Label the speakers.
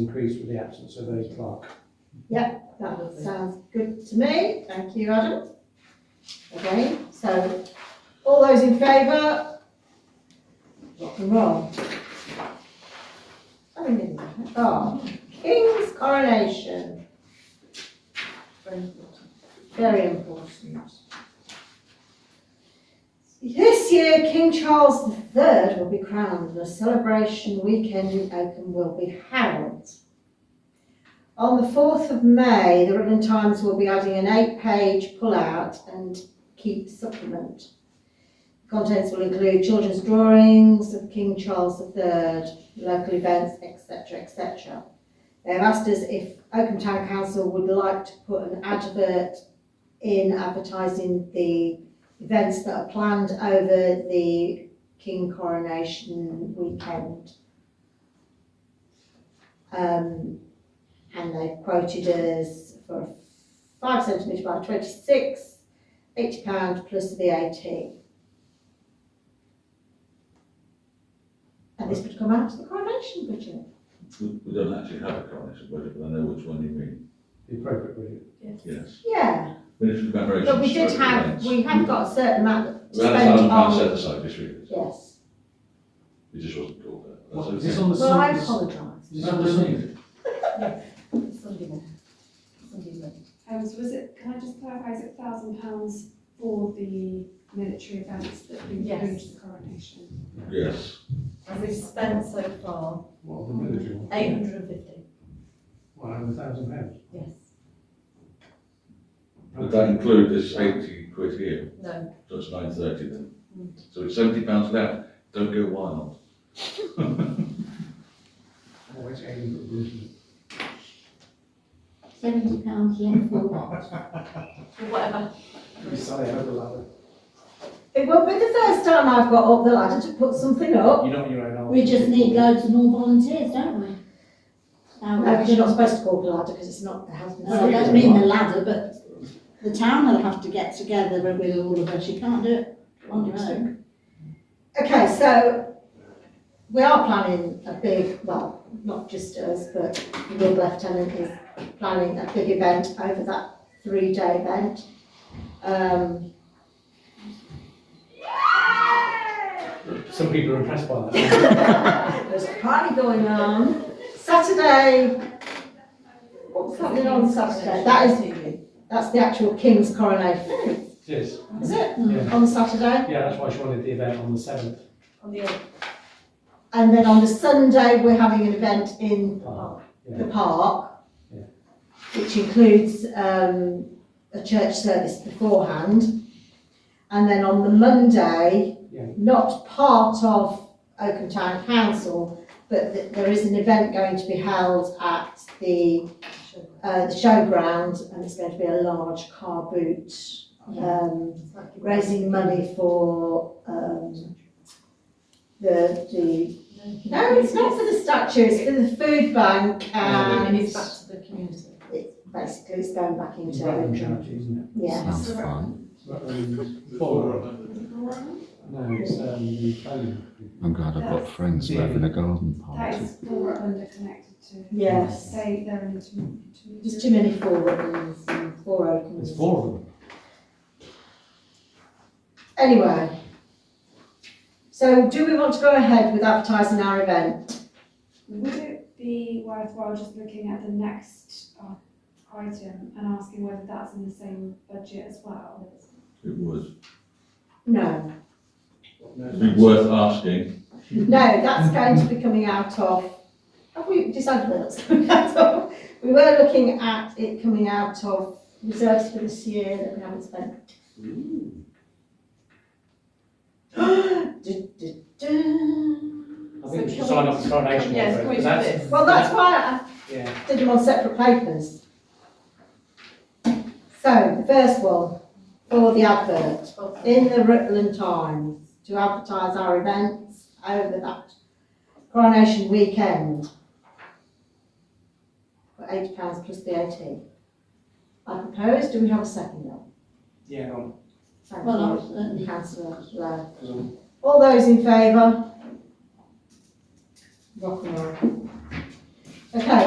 Speaker 1: increase with the absence of a clerk.
Speaker 2: That sounds good to me, thank you, Adam. Okay, so, all those in favour? Rock and roll. I mean, oh, King's coronation. Very important. Very important. This year, King Charles III will be crowned and a celebration weekend in Oakham will be held. On the 4th of May, the Rutland Times will be adding an eight-page pull-out and keep supplement. Contents will include children's drawings of King Charles III, local events, etc, etc. They've asked us if Oakham Town Council would like to put an advert in advertising the events that are planned over the King coronation weekend. Um, and they've quoted us for a five centimetre by twenty-six, eighty pound plus VAT. And this would come out of the coronation budget.
Speaker 3: We, we don't actually have a coronation budget, but I know which one you mean,
Speaker 1: The appropriate budget.
Speaker 3: yes.
Speaker 2: Yeah,
Speaker 3: Ministry of Commemorations.
Speaker 2: but we did
Speaker 3: stroke
Speaker 2: have,
Speaker 3: events.
Speaker 2: we have got a certain amount to
Speaker 3: We had a thousand
Speaker 2: spend
Speaker 3: pounds set
Speaker 2: on,
Speaker 3: aside this year,
Speaker 2: yes.
Speaker 3: it just wasn't called that.
Speaker 4: What,
Speaker 3: That's
Speaker 4: is this
Speaker 3: okay.
Speaker 4: on the
Speaker 2: Well, I
Speaker 4: Sunday?
Speaker 2: apologise.
Speaker 4: Is this on the Sunday?
Speaker 2: Sunday morning. Sunday morning.
Speaker 5: Um, so was it, can I just clarify, is it thousand pounds for the military events that
Speaker 6: Yes.
Speaker 5: include the coronation?
Speaker 3: Yes,
Speaker 6: And we've spent so far
Speaker 1: What are the military ones?
Speaker 6: eight hundred and fifty,
Speaker 1: Well, over a thousand pounds.
Speaker 6: yes,
Speaker 3: would that include this eighty quid here,
Speaker 6: no,
Speaker 3: so it's nine thirty then? So it's seventy pounds left, don't go wild.
Speaker 1: Oh, it's eighty quid, isn't it?
Speaker 7: Seventy pounds left for what?
Speaker 6: for whatever.
Speaker 2: It won't be the first time I've got up the ladder to put something up.
Speaker 4: You know your own.
Speaker 7: We just need loads more volunteers, don't we? Now,
Speaker 2: No, because you're not supposed to call the ladder because it's not the health and
Speaker 7: Well, I
Speaker 2: safety.
Speaker 7: don't mean the ladder, but the town will have to get together with all of us, you can't do it
Speaker 2: Oh,
Speaker 7: on your own.
Speaker 2: Okay, so we are planning a big, well, not just us, but the Lord Lieutenant is planning a big event over that three-day event. Um,
Speaker 4: Some people are impressed by that.
Speaker 2: there's a party going on. Saturday, what's happening on Saturday? That is, that's the actual King's coronation,
Speaker 4: Yes,
Speaker 2: is it?
Speaker 4: Yeah.
Speaker 2: On Saturday?
Speaker 4: yeah, that's why she wanted the event on the seventh.
Speaker 6: On the eighth,
Speaker 2: And then on the Sunday, we're having an event in
Speaker 4: Park,
Speaker 2: the park,
Speaker 4: Yeah.
Speaker 2: which includes um, a church service beforehand. And then on the Monday,
Speaker 4: Yeah.
Speaker 2: not part of Oakham Town Council, but th- there is an event going to be held at the, uh, the showground, and it's going to be a large car boot, um, raising money for um, the, the no, it's not for the statue, it's for the food
Speaker 4: Oh,
Speaker 2: bank
Speaker 6: And
Speaker 2: and
Speaker 6: it's back to the community.
Speaker 2: basically it's going back
Speaker 1: It's
Speaker 2: into,
Speaker 1: Rutland charity, isn't
Speaker 2: yeah.
Speaker 5: Sounds
Speaker 8: fun.
Speaker 1: it? Rutland Borough. No, it's, um, the planning.
Speaker 8: I'm glad I've got friends who are having a garden
Speaker 5: That
Speaker 8: party.
Speaker 5: is all Rutland are connected to.
Speaker 2: Yes.
Speaker 5: They, they're an intermediary.
Speaker 2: There's too many four Rutlands and four Oaklands.
Speaker 4: There's four of them.
Speaker 2: Anyway. So do we want to go ahead with advertising our event?
Speaker 5: Would it be worthwhile just looking at the next uh, item and asking whether that's in the same budget as well?
Speaker 3: it would
Speaker 2: No,
Speaker 3: be worth asking,
Speaker 2: no, that's going to be coming out of, have we decided where that's coming out of? We were looking at it coming out of reserves for this year that we haven't spent. Du- du- du.
Speaker 4: I think we
Speaker 6: So
Speaker 4: should
Speaker 6: can
Speaker 4: sign
Speaker 6: we-
Speaker 4: up for coronation.
Speaker 6: yes,
Speaker 4: offer,
Speaker 6: can we
Speaker 4: because
Speaker 6: do
Speaker 4: that's-
Speaker 6: this?
Speaker 2: Well, that's why
Speaker 4: Yeah,
Speaker 2: I did them on separate papers. So, the first one, for the advert, in the Rutland Times, to advertise our events over that coronation weekend. For eight pounds plus VAT. I propose, do we have a second now?
Speaker 4: yeah, go on.
Speaker 2: Thank
Speaker 7: Well,
Speaker 2: you,
Speaker 7: I'll certainly.
Speaker 2: councillor Lowe.
Speaker 4: 'Cause I'm-
Speaker 2: All those in favour? Rock and roll. Okay,